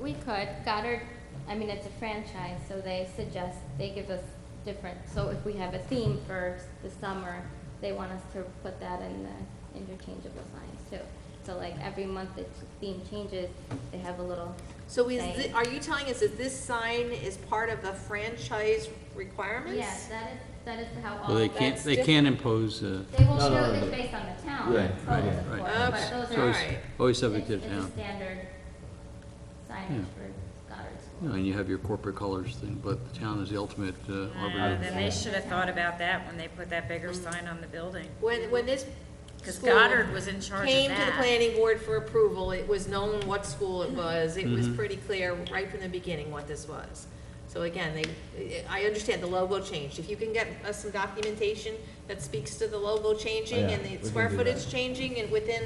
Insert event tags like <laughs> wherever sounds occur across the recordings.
we could, Goddard, I mean, it's a franchise, so they suggest, they give us different, so if we have a theme for the summer, they want us to put that in the interchangeable signs too. So like every month the theme changes, they have a little So is, Right. thi- are you telling us that this sign is part of the franchise requirements? Yes, that is, that is how all. Well, they can't, that's they diff- can't impose, uh, They will No, show no, this no. based on the town. Right, so right, it's right. important, Oops, But those so are. always, it's- Alright. always It's subject to it's the a town. standard Yeah. signage for Goddard School. You know, And you have your corporate colors thing, but the town is the ultimate uh, Uh, arbiter. Then they should have thought about that when they put that bigger sign on the building. When, when this. Because school Goddard was in charge of Came to the that. planning board for approval, it was known what school it was, it Mm-hmm. was pretty clear right from the beginning what this was. So again, they, I understand the logo changed, if you can get us some documentation that speaks to the logo changing Yeah, and we can the square do that. footage changing and within,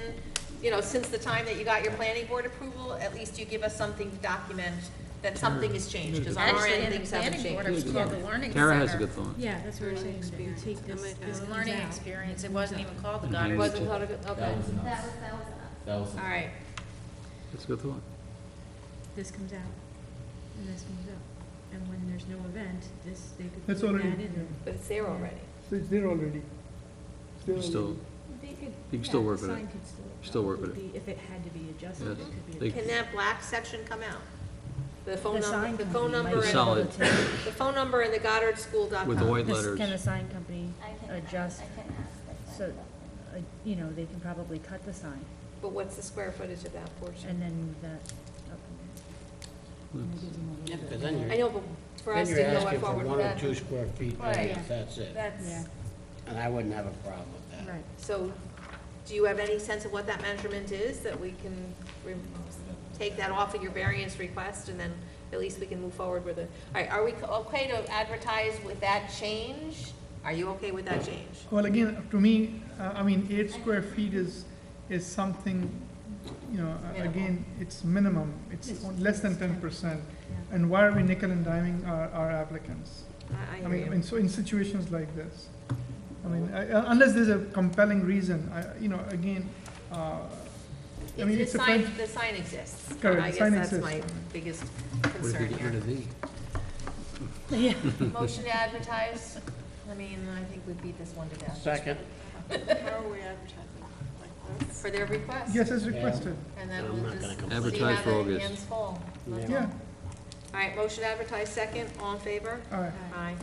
you know, since the time that you got your planning board approval, at least you give us something to document that Mm. something has changed, because on our Actually, end, in the things haven't planning board, changed. it was called the Learning Center. Tara has a good thought. Yeah, that's what we're saying, that you take this, It this was a comes learning out. experience. It wasn't even called the Mhm. Goddard. Wasn't called a good, okay, That was That was, enough. that was enough. That was all enough. right. That's a good thought. This comes out, and this comes up. And when there's no event, this, they could That's put that already- in there. But it's there already. So it's there already. It's there You Still, already. They could- You can yeah, still the work with it. sign could still- Still work with would be- If it had to be adjusted, it Yes, could be. they- adjusted. Can that black section come out? The phone The sign number, the phone company might number The be and, solid- able to- the phone number and the GoddardSchool.com. with the white This- Can the letters, sign company I can, I can ask adjust, if so, I- uh, you know, they can probably cut the sign But what's the square footage of that portion? and then move that up in there. and it gives them a little Yeah, bit. because then I you're, know, but for then us to you're go asking for forward with one or that. two square feet, Right. variance, that's it. Yeah. That's, And I wouldn't have a problem with that. Right. So do you have any sense of what that measurement is, that we can re- take that off of your variance request and then at least we can move forward with it? All right, are we okay to advertise with that change? Are you okay with that change? Well, again, to me, uh, I mean, eight square feet is, is something, you know, uh, Minimal. again, it's minimum, it's It's- on- less than it's ten 10%. percent. Yeah. And why are we nickel and diming our, our applicants? I, I I mean, hear in, you. so in situations like this, I mean, I- uh, unless there's a compelling reason, I, you know, again, uh, I mean, The it's a. sign, franch- the sign exists. Correct, I the guess sign that's exists. my biggest what if you concern get rid here. of these? Motion to advertise, I mean, I think we beat this one to death. Second, How are we advertising? For their request. Yes, as Yeah. requested, And then I'm we'll not just gonna see complain. Advertise how for the August. hands fall. yeah, All right, motion to advertise second, all in favor? all right. Aye.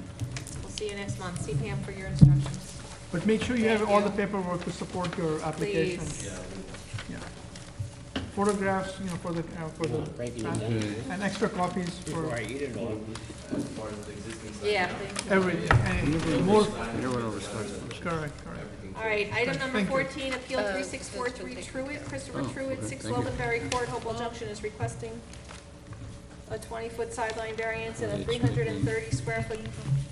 We'll see you next month. See Pam for your instructions. But make sure you have Thank all the you. paperwork to support your application. Please. Yeah. Photographs, you know, for the, uh, for You're the, not breaking it Mm-hmm. down and extra copies before for I eat it all. Yeah, please. every, and more, Everyone overstocked. correct, correct. All right, item number Thank you. fourteen, appeal three six four three Truitt, Christopher Oh, Truitt, okay, six thank you. Loganberry Court, Hopewell Junction is requesting a twenty-foot sideline variance and a Page three hundred and thirty square foot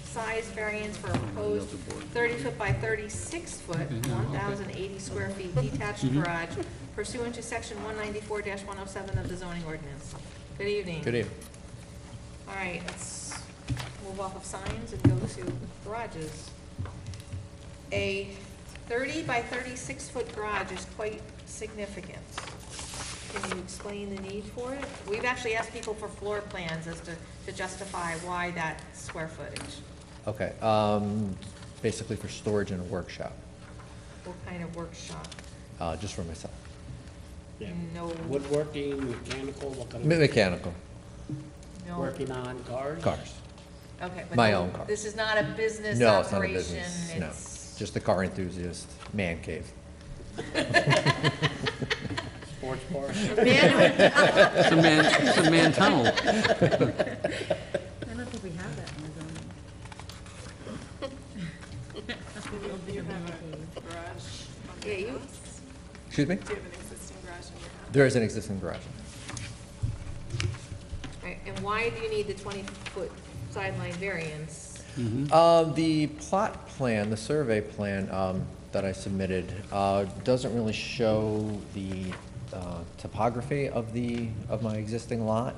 size variance for a proposed thirty-foot by thirty-six foot, Okay, yeah, one okay. Mm-hmm. thousand eighty square feet detached garage pursuant to section one ninety-four one oh seven of the zoning ordinance. Good evening. Good evening. All right, let's move off of signs and go to garages. A thirty by thirty-six foot garage is quite significant. Can you explain the need for it? We've actually asked people for floor plans as to, to justify why that square footage, Okay, um, basically for storage in a workshop, what kind of workshop, uh, just for myself. Yeah. no, Woodworking, mechanical, what kind Me- of, Mechanical, no. working on cars? cars. Okay, but My no- own car. This is not a business No, it's not a operation, business, no. it's, Just a car enthusiast, man cave. Sports bar? <laughs> It's a man, it's a man tunnel. I don't think we have that in the zoning. yeah, you, Excuse me? There is an existing garage. Right, and why do you need the twenty-foot sideline variance? Uh, the plot plan, the survey plan, um, that I submitted, uh, doesn't really show the, uh, topography of the, of my existing lot.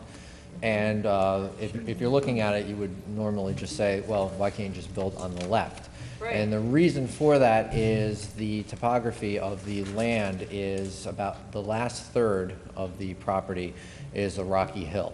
And, uh, if, if you're looking at it, you would normally just say, well, why can't you just build on the left? Right. And the reason for that is the topography of the land is about, the last third of the property is a rocky hill.